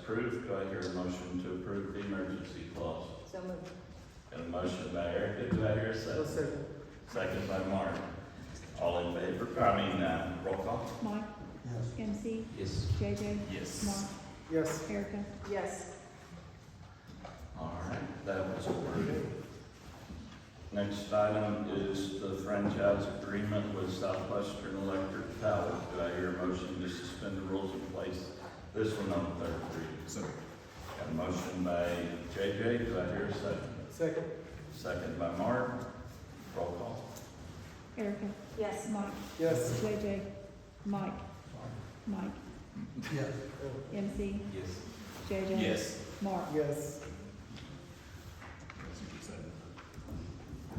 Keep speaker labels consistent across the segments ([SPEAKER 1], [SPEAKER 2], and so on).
[SPEAKER 1] approved. Do I hear a motion to approve the emergency clause?
[SPEAKER 2] So moved.
[SPEAKER 1] Got a motion by Erica, do I hear a
[SPEAKER 3] I'll
[SPEAKER 1] second?
[SPEAKER 3] second.
[SPEAKER 1] Second by Mark. All in favor, I mean, uh, roll call?
[SPEAKER 4] Mark,
[SPEAKER 3] Yes.
[SPEAKER 4] MC,
[SPEAKER 1] Yes.
[SPEAKER 4] JJ,
[SPEAKER 1] Yes.
[SPEAKER 4] Mark,
[SPEAKER 3] Yes.
[SPEAKER 4] Erica.
[SPEAKER 2] Yes.
[SPEAKER 1] All right, that was approved. Next item is the franchise agreement with Southwestern Electric Power. Do I hear a motion to suspend the rules and place this one on third reading?
[SPEAKER 5] So,
[SPEAKER 1] Got a motion by JJ, do I hear a second?
[SPEAKER 3] Second.
[SPEAKER 1] Second by Mark. Roll call.
[SPEAKER 4] Erica,
[SPEAKER 2] Yes.
[SPEAKER 4] Mark,
[SPEAKER 3] Yes.
[SPEAKER 4] JJ, Mike, Mike,
[SPEAKER 3] Yes.
[SPEAKER 4] MC,
[SPEAKER 1] Yes.
[SPEAKER 4] JJ.
[SPEAKER 5] yes.
[SPEAKER 4] Mark,
[SPEAKER 3] Yes.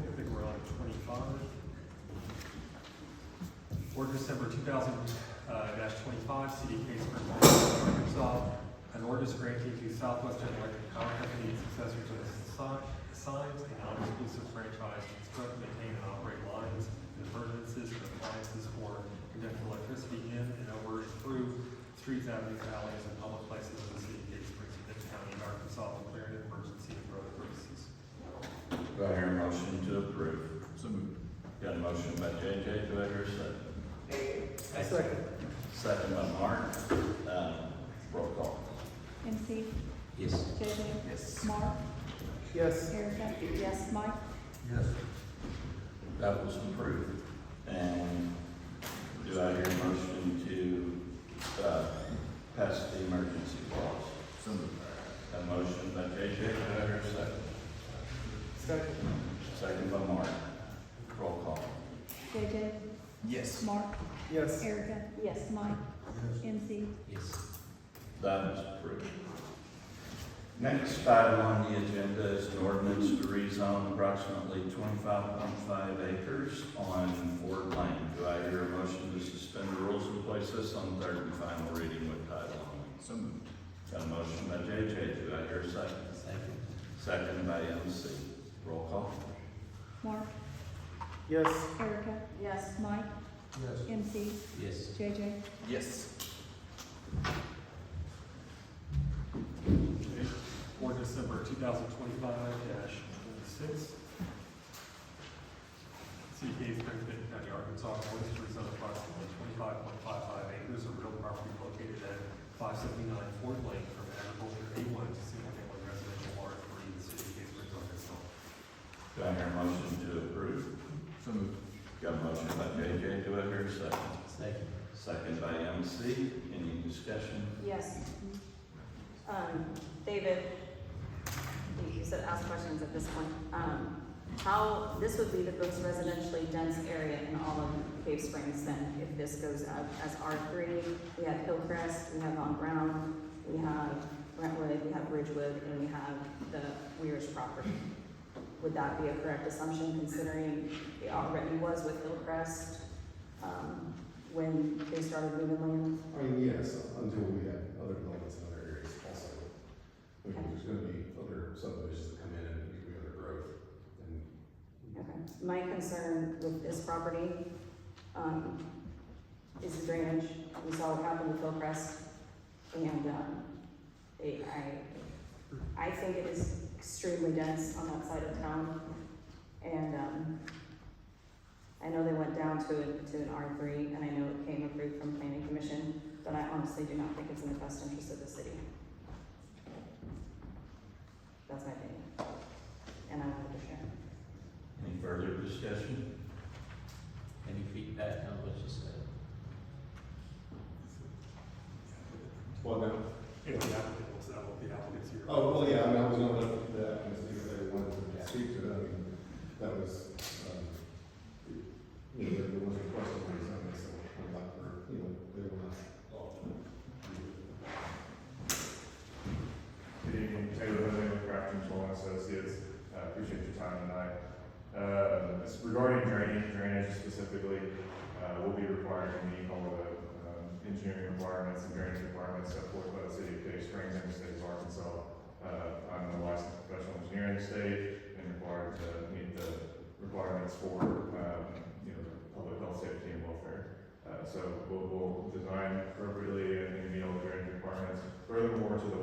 [SPEAKER 6] I think we're on twenty-five. Ordinance number two thousand, uh, dash twenty-five, City of Kingsburg, Arkansas. An ordinance granting to Southwestern Electric Power Company successor to the assi- assigns a non-exclusive franchise to construct, maintain, and operate lines and furnaces and appliances for conducting electricity in and over and through streets, avenues, alleys, and public places in the city of Kingsburg, Benton County, Arkansas, declaring an emergency for other purposes.
[SPEAKER 1] Do I hear a motion to approve?
[SPEAKER 5] So moved.
[SPEAKER 1] Got a motion by JJ, do I hear a second?
[SPEAKER 3] Second.
[SPEAKER 1] Second by Mark. Um, Roll call.
[SPEAKER 4] MC,
[SPEAKER 1] Yes.
[SPEAKER 4] JJ,
[SPEAKER 6] Yes.
[SPEAKER 4] Mark,
[SPEAKER 3] Yes.
[SPEAKER 4] Erica,
[SPEAKER 2] Yes.
[SPEAKER 4] Mike,
[SPEAKER 3] Yes.
[SPEAKER 1] That was approved. And do I hear a motion to uh, pass the emergency clause?
[SPEAKER 5] So moved.
[SPEAKER 1] Got a motion by JJ, do I hear a second?
[SPEAKER 3] Second.
[SPEAKER 1] Second by Mark. Roll call.
[SPEAKER 4] JJ,
[SPEAKER 5] Yes.
[SPEAKER 4] Mark,
[SPEAKER 3] Yes.
[SPEAKER 4] Erica,
[SPEAKER 2] Yes.
[SPEAKER 4] Mike, MC,
[SPEAKER 1] Yes. That is approved. Next item on the agenda is an ordinance to rezone approximately twenty-five point five acres on Ford Lane. Do I hear a motion to suspend the rules and place this on third and final reading with title only?
[SPEAKER 5] So moved.
[SPEAKER 1] Got a motion by JJ, do I hear a second? Second. Second by MC. Roll call.
[SPEAKER 4] Mark,
[SPEAKER 3] Yes.
[SPEAKER 4] Erica,
[SPEAKER 2] Yes.
[SPEAKER 4] Mike,
[SPEAKER 3] Yes.
[SPEAKER 4] MC,
[SPEAKER 1] Yes.
[SPEAKER 4] JJ.
[SPEAKER 5] Yes.
[SPEAKER 6] Ordinance number two thousand twenty-five twenty-six. City of Kingsburg, Benton County, Arkansas, ordinance to rezone approximately twenty-five point five five acres of real property located at five seventy-nine Ford Lane from agriculture A one to single-family residential R three in the city of Kingsburg, Arkansas.
[SPEAKER 1] Do I hear a motion to approve?
[SPEAKER 5] So moved.
[SPEAKER 1] Got a motion by JJ, do I hear a second? Second. Second by MC, any discussion?
[SPEAKER 2] Yes. Um, David, you said ask questions at this point. Um, how, this would be the most residentially dense area in all of Cave Springs then, if this goes up as R three. We have Hillcrest, we have On Brown, we have Brentwood, we have Ridgewood, and we have the Weir's property. Would that be a correct assumption considering it already was with Hillcrest, um, when they started moving land?
[SPEAKER 7] I mean, yes, until we have other developments in other areas also. I mean, There's gonna be other subdivisions that come in and there's gonna be other growth and
[SPEAKER 2] Okay, my concern with this property, um, is the drainage. We saw what happened with Hillcrest, and, um, it, I, I think it is extremely dense on that side of town, and, um, I know they went down to, a- to an R three, and I know it came approved from planning commission, but I honestly do not think it's in the best interest of the city. That's my opinion, and I wanted to share.
[SPEAKER 1] Any further discussion?
[SPEAKER 8] Any feedback on what you said?
[SPEAKER 7] what now?
[SPEAKER 6] If the applicant wants that, will the applicant's here.
[SPEAKER 7] Oh, well, yeah, I mean, I was gonna let the applicants speak if they wanted to speak to it, I mean, that was, um, you know, there was a question or something, so I'm like, or, you know, they were not.
[SPEAKER 9] Good evening, Taylor Living with Craft Control and Associates. I appreciate your time tonight. Uh, it's Regarding drainage, drainage specifically, uh, we'll be requiring to meet all the um, engineering requirements and drainage requirements set forth by the city of Cave Springs.
[SPEAKER 7] Uh, um, Uh,